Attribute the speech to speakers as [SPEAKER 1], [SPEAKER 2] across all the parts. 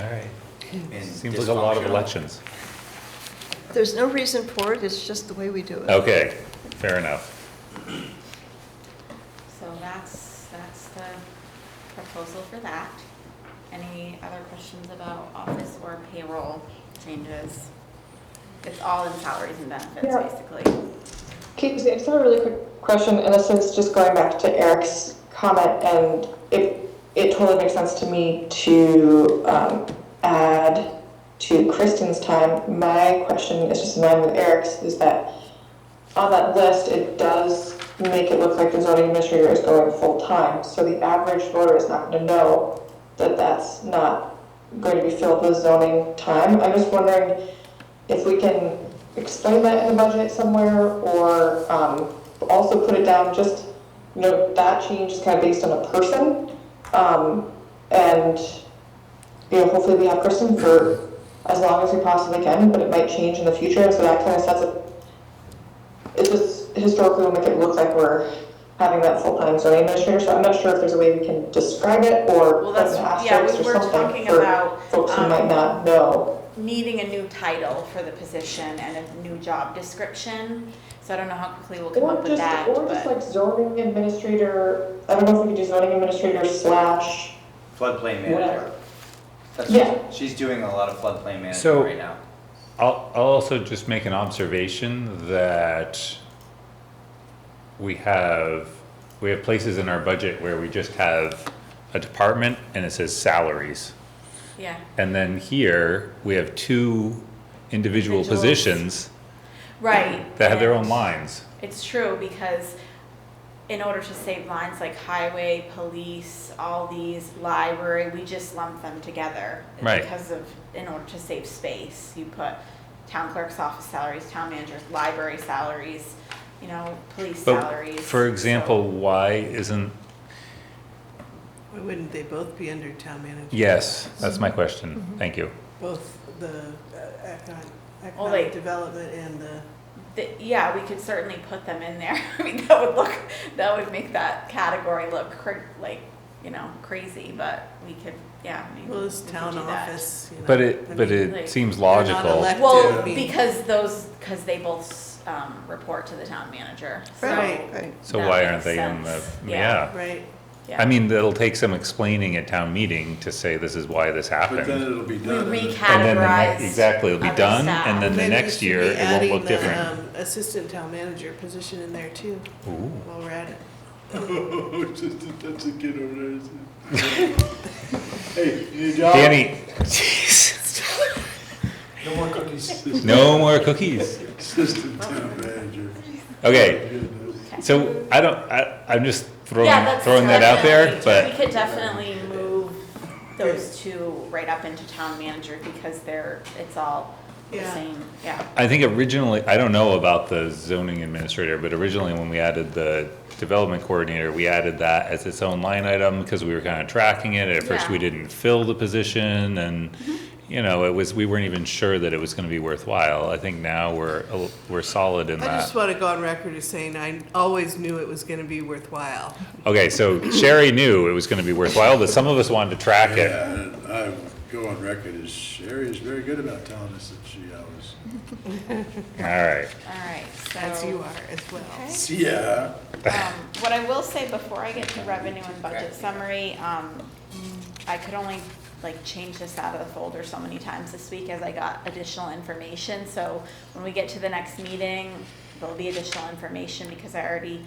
[SPEAKER 1] right.
[SPEAKER 2] and
[SPEAKER 3] Seems like a lot of
[SPEAKER 2] dysfunctional.
[SPEAKER 3] elections.
[SPEAKER 4] There's no reason for it, it's just the way we do it.
[SPEAKER 3] Okay, fair enough.
[SPEAKER 5] So that's, that's the proposal for that. Any other questions about office or payroll changes? It's all in salaries and benefits,
[SPEAKER 6] Yeah.
[SPEAKER 5] basically.
[SPEAKER 6] Kate, I just have a really quick question, and this is just going back to Eric's comment, and it, it totally makes sense to me to um, add to Kristen's time. My question is just in line with Eric's, is that on that list, it does make it look like the zoning administrator is going full-time, so the average voter is not gonna know that that's not going to be filled with zoning time. I'm just wondering if we can explain that in the budget somewhere, or um, also put it down, just, you know, that change is kind of based on a person. Um, And, you know, hopefully we have Kristen for as long as we possibly can, but it might change in the future, so that kind of sets up it just historically will make it look like we're having that full-time zoning administrator, so I'm not sure if there's a way we can describe it or
[SPEAKER 5] Well,
[SPEAKER 6] put an
[SPEAKER 5] that's- yeah, we
[SPEAKER 6] asterisk or
[SPEAKER 5] were
[SPEAKER 6] something
[SPEAKER 5] talking
[SPEAKER 6] for
[SPEAKER 5] about,
[SPEAKER 6] folks who
[SPEAKER 5] um,
[SPEAKER 6] might not know.
[SPEAKER 5] needing a new title for the position and a new job description. So I don't know how quickly we'll come
[SPEAKER 6] Or
[SPEAKER 5] up with
[SPEAKER 6] just-
[SPEAKER 5] that,
[SPEAKER 6] Or just
[SPEAKER 5] but
[SPEAKER 6] like zoning administrator, I don't know if we could do zoning administrator slash,
[SPEAKER 2] Floodplain
[SPEAKER 6] Whatever.
[SPEAKER 2] manager. That's
[SPEAKER 6] Yeah.
[SPEAKER 2] what, she's doing a lot of floodplain
[SPEAKER 3] So-
[SPEAKER 2] management right now.
[SPEAKER 3] I'll, I'll also just make an observation that we have, we have places in our budget where we just have a department and it says salaries.
[SPEAKER 5] yeah.
[SPEAKER 3] And then here, we have two individual
[SPEAKER 5] Individuals.
[SPEAKER 3] positions
[SPEAKER 5] Right.
[SPEAKER 3] that have their own
[SPEAKER 5] and
[SPEAKER 3] lines.
[SPEAKER 5] It's true because in order to save lines like highway, police, all these, library, we just lump them together.
[SPEAKER 3] Right.
[SPEAKER 5] Because of, in order to save space, you put town clerk's office salaries, town manager's, library salaries, you know, police
[SPEAKER 3] But
[SPEAKER 5] salaries.
[SPEAKER 3] for
[SPEAKER 5] so-
[SPEAKER 3] example, why isn't,
[SPEAKER 1] Why wouldn't they both be under town manager?
[SPEAKER 3] yes, that's my question. Thank you.
[SPEAKER 1] Both the uh, econ-
[SPEAKER 5] Well, they-
[SPEAKER 1] economic development and the,
[SPEAKER 5] Th yeah, we could certainly put them in there. I mean, that would look, that would make that category look cr- like, you know, crazy, but we could, yeah. maybe
[SPEAKER 1] well, it's
[SPEAKER 5] we could
[SPEAKER 1] town
[SPEAKER 5] do that.
[SPEAKER 1] office, you know.
[SPEAKER 3] But
[SPEAKER 1] I
[SPEAKER 3] it, but
[SPEAKER 1] mean,
[SPEAKER 3] it
[SPEAKER 5] like,
[SPEAKER 3] seems
[SPEAKER 1] they're not
[SPEAKER 3] logical.
[SPEAKER 1] elect-
[SPEAKER 5] Well,
[SPEAKER 1] Yeah.
[SPEAKER 5] because those, because they both, um, report to the town manager, so.
[SPEAKER 1] Right, right,
[SPEAKER 3] So
[SPEAKER 5] that
[SPEAKER 3] why
[SPEAKER 5] makes
[SPEAKER 3] aren't they in the,
[SPEAKER 5] sense.
[SPEAKER 3] yeah.
[SPEAKER 1] right.
[SPEAKER 3] I mean, it'll take some explaining at town meeting to say this is why this
[SPEAKER 7] But then
[SPEAKER 3] happened.
[SPEAKER 7] it'll be
[SPEAKER 5] We
[SPEAKER 7] done.
[SPEAKER 3] And then the
[SPEAKER 5] recategorize.
[SPEAKER 3] ne- Exactly, it'll be
[SPEAKER 5] other
[SPEAKER 3] done,
[SPEAKER 5] staff.
[SPEAKER 3] and then the
[SPEAKER 1] Maybe we
[SPEAKER 3] next
[SPEAKER 1] should
[SPEAKER 3] year,
[SPEAKER 1] be
[SPEAKER 3] it won't
[SPEAKER 1] adding
[SPEAKER 3] look
[SPEAKER 1] the,
[SPEAKER 3] different.
[SPEAKER 1] um, Assistant town manager position in there too,
[SPEAKER 3] Ooh.
[SPEAKER 1] while we're at it.
[SPEAKER 7] Just to touch the kid over there. Hey, you need a job?
[SPEAKER 3] Danny,
[SPEAKER 7] No more cookies.
[SPEAKER 3] no more cookies.
[SPEAKER 7] Assistant town manager.
[SPEAKER 3] Okay, so I don't, I, I'm just
[SPEAKER 5] Yeah,
[SPEAKER 3] throwing,
[SPEAKER 5] that's
[SPEAKER 3] throwing that out there, but.
[SPEAKER 5] definitely- We could definitely move those two right up into town manager because they're, it's all the
[SPEAKER 1] Yeah.
[SPEAKER 5] same, yeah.
[SPEAKER 3] I think originally, I don't know about the zoning administrator, but originally when we added the development coordinator, we added that as its own line item because we were kind of tracking it. At first,
[SPEAKER 5] Yeah.
[SPEAKER 3] we didn't fill the position and, you know, it was, we weren't even sure that it was going to be worthwhile. I think now we're, a l- we're solid in
[SPEAKER 1] I
[SPEAKER 3] that.
[SPEAKER 1] just want to go on record as saying I always knew it was going to be worthwhile.
[SPEAKER 3] Okay, so Sherry knew it was going to be worthwhile, but some of us wanted to track it.
[SPEAKER 7] Yeah, and I go on record as Sherry is very good about telling us that she always,
[SPEAKER 3] All right.
[SPEAKER 5] All right, so.
[SPEAKER 1] As you are as well.
[SPEAKER 5] Okay.
[SPEAKER 7] yeah.
[SPEAKER 5] Um, What I will say before I get to revenue and budget summary, um, I could only like change this out of the folder so many times this week as I got additional information. So when we get to the next meeting, there'll be additional information because I already,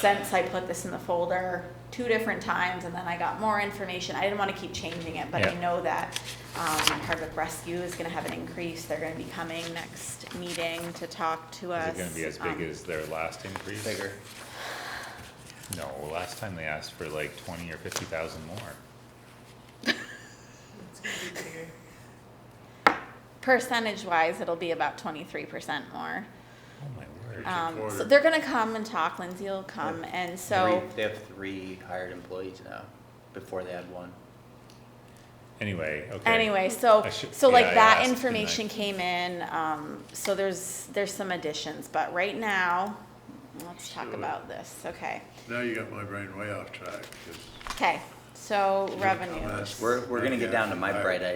[SPEAKER 5] since I put this in the folder two different times and then I got more information, I didn't want to keep changing it, but I
[SPEAKER 3] Yeah.
[SPEAKER 5] know that um, Hardwick Rescue is going to have an increase. They're going to be coming next meeting to talk to
[SPEAKER 3] Is
[SPEAKER 5] us.
[SPEAKER 3] it going to be as
[SPEAKER 5] um,
[SPEAKER 3] big as their last increase?
[SPEAKER 2] Bigger.
[SPEAKER 3] No, last time they asked for like 20 or 50,000 more.
[SPEAKER 5] percentage wise, it'll be about twenty-three percent more.
[SPEAKER 3] Oh, my word.
[SPEAKER 5] Um, so
[SPEAKER 7] quarter.
[SPEAKER 5] they're gonna come and talk, Lindsay will come, and so,
[SPEAKER 2] Three- They have three hired employees now, before they had one.
[SPEAKER 3] Anyway, okay.
[SPEAKER 5] anyway, so,
[SPEAKER 3] I should-
[SPEAKER 5] so
[SPEAKER 3] yeah, I
[SPEAKER 5] like that
[SPEAKER 3] asked, didn't I?
[SPEAKER 5] information came in, um, so there's, there's some additions, but right now, let's talk
[SPEAKER 7] Sure.
[SPEAKER 5] about this, okay?
[SPEAKER 7] Now you got my brain way off track, 'cause
[SPEAKER 5] Okay, so revenues.
[SPEAKER 7] ask
[SPEAKER 2] We're, we're gonna get down to my bright